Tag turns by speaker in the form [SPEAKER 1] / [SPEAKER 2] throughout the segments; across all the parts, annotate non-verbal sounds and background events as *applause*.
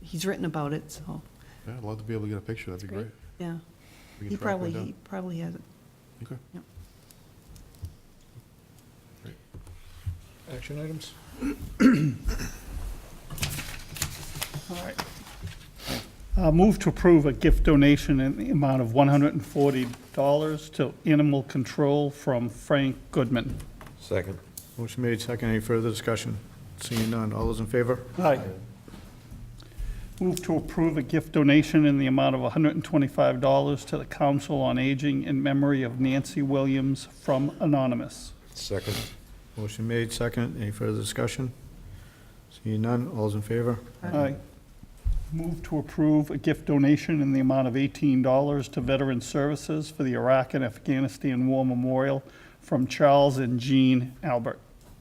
[SPEAKER 1] he's written about it, so,
[SPEAKER 2] Yeah, I'd love to be able to get a picture, that'd be
[SPEAKER 3] Great.
[SPEAKER 2] great.
[SPEAKER 1] yeah.
[SPEAKER 2] We can
[SPEAKER 1] He
[SPEAKER 2] track one
[SPEAKER 1] probably,
[SPEAKER 2] down.
[SPEAKER 1] he probably has it.
[SPEAKER 2] Okay.
[SPEAKER 1] Yep.
[SPEAKER 2] Great.
[SPEAKER 3] Action items?
[SPEAKER 4] All right. Uh, Move to approve a gift donation in the amount of $140 to Animal Control from Frank Goodman.
[SPEAKER 5] Second.
[SPEAKER 3] Motion made, second. Any further discussion? Seeing none. All those in favor?
[SPEAKER 4] Aye. Move to approve a gift donation in the amount of $125 to the Council on Aging in memory of Nancy Williams from Anonymous.
[SPEAKER 5] Second.
[SPEAKER 3] Motion made, second. Any further discussion? Seeing none. All those in favor?
[SPEAKER 4] Aye. Move to approve a gift donation in the amount of $18 to Veteran Services for the Iraq and Afghanistan War Memorial from Charles and Jean Albert.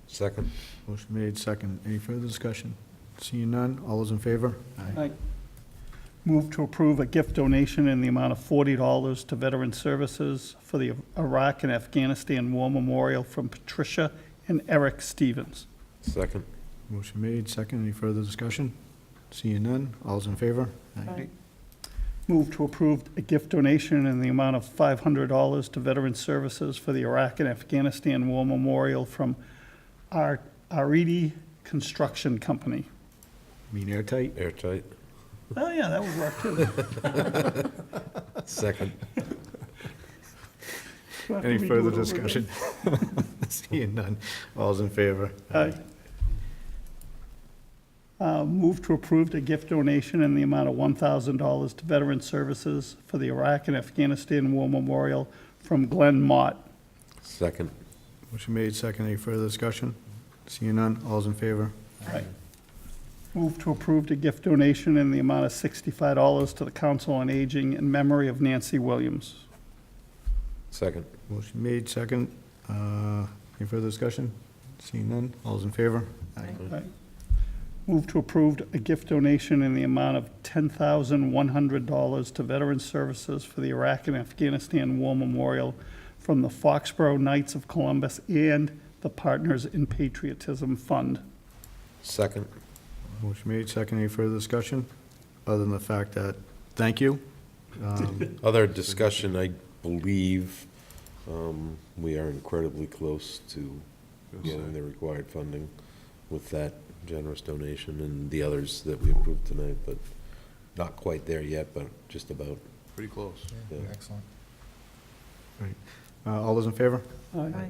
[SPEAKER 5] Second.
[SPEAKER 3] Motion made, second. Any further discussion? Seeing none. All those in favor?
[SPEAKER 4] Aye. Move to approve a gift donation in the amount of $40 to Veteran Services for the Iraq and Afghanistan War Memorial from Patricia and Eric Stevens.
[SPEAKER 5] Second.
[SPEAKER 3] Motion made, second. Any further discussion? Seeing none. All those in favor?
[SPEAKER 1] Aye.
[SPEAKER 4] Move to approve a gift donation in the amount of $500 to Veteran Services for the Iraq and Afghanistan War Memorial from Ar- Aridi Construction Company.
[SPEAKER 3] Mean airtight?
[SPEAKER 5] Airtight.
[SPEAKER 4] Oh, yeah, that would work too. *laughs*
[SPEAKER 5] Second.
[SPEAKER 3] Any further discussion? *laughs* Seeing none. All's in favor?
[SPEAKER 4] Aye. Uh, Move to approve a gift donation in the amount of $1,000 to Veteran Services for the Iraq and Afghanistan War Memorial from Glenn Mott.
[SPEAKER 5] Second.
[SPEAKER 3] Motion made, second. Any further discussion? Seeing none. All's in favor?
[SPEAKER 4] Move to approve a gift donation in the amount of $65 to the Council on Aging in memory of Nancy Williams.
[SPEAKER 5] Second.
[SPEAKER 3] Motion made, second. Uh, Any further discussion? Seeing none. All's in favor?
[SPEAKER 4] Aye. Move to approve a gift donation in the amount of $10,100 to Veteran Services for the Iraq and Afghanistan War Memorial from the Foxborough Knights of Columbus and the Partners in Patriotism Fund.
[SPEAKER 5] Second.
[SPEAKER 3] Motion made, second. Any further discussion? Other than the fact that, thank you.
[SPEAKER 4] *laughs*
[SPEAKER 3] Um,
[SPEAKER 5] Other discussion, I believe um, we are incredibly close to getting the required funding with that generous donation and the others that we approved tonight, but not quite there yet, but just about.
[SPEAKER 2] Pretty close.
[SPEAKER 5] Yeah.
[SPEAKER 6] Excellent.
[SPEAKER 3] uh, All those in favor?
[SPEAKER 4] Aye.
[SPEAKER 1] Aye.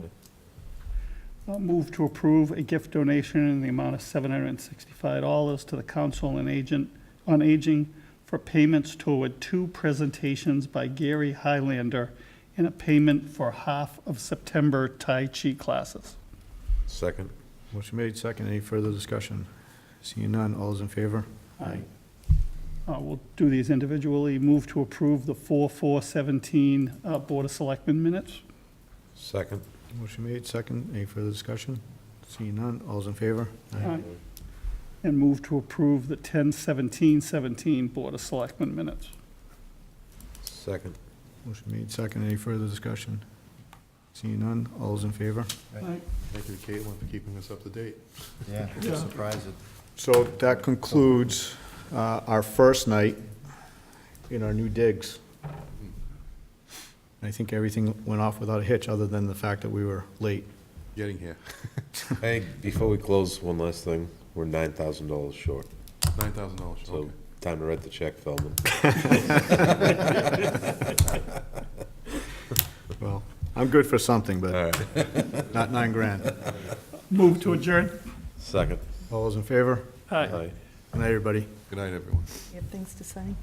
[SPEAKER 4] I'll Move to approve a gift donation in the amount of $765 to the Council on Agent, on Aging for payments toward two presentations by Gary Highlander and a payment for half of September Tai Chi classes.
[SPEAKER 5] Second.
[SPEAKER 3] Motion made, second. Any further discussion? Seeing none. All's in favor?
[SPEAKER 4] Aye. Uh, We'll do these individually. Move to approve the 4/4/17 uh, Board of Selectmen minutes.
[SPEAKER 5] Second.
[SPEAKER 3] Motion made, second. Any further discussion? Seeing none. All's in favor?
[SPEAKER 4] Aye. And move to approve the 10/17/17 Board of Selectmen minutes.
[SPEAKER 5] Second.
[SPEAKER 3] Motion made, second. Any further discussion? Seeing none. All's in favor?
[SPEAKER 2] Thank you to Caitlin for keeping us up to date.
[SPEAKER 6] Yeah,
[SPEAKER 4] Yeah.
[SPEAKER 6] I'm surprised it
[SPEAKER 3] So that concludes uh, our first night in our new digs. I think everything went off without a hitch, other than the fact that we were late.
[SPEAKER 2] Getting here.
[SPEAKER 5] Hey, before we close, one last thing. We're nine thousand dollars short,
[SPEAKER 2] Nine thousand dollars,
[SPEAKER 5] so
[SPEAKER 2] okay.
[SPEAKER 5] time to write the check, Feldman.
[SPEAKER 3] Well, I'm good for something,
[SPEAKER 5] All
[SPEAKER 3] but
[SPEAKER 5] right,
[SPEAKER 3] *laughs* not nine grand.
[SPEAKER 4] Move to adjourn.
[SPEAKER 5] second.
[SPEAKER 3] All those in favor?
[SPEAKER 4] Aye.
[SPEAKER 5] Aye.
[SPEAKER 3] Good night, everybody.
[SPEAKER 2] Good night, everyone.
[SPEAKER 1] You have things to say?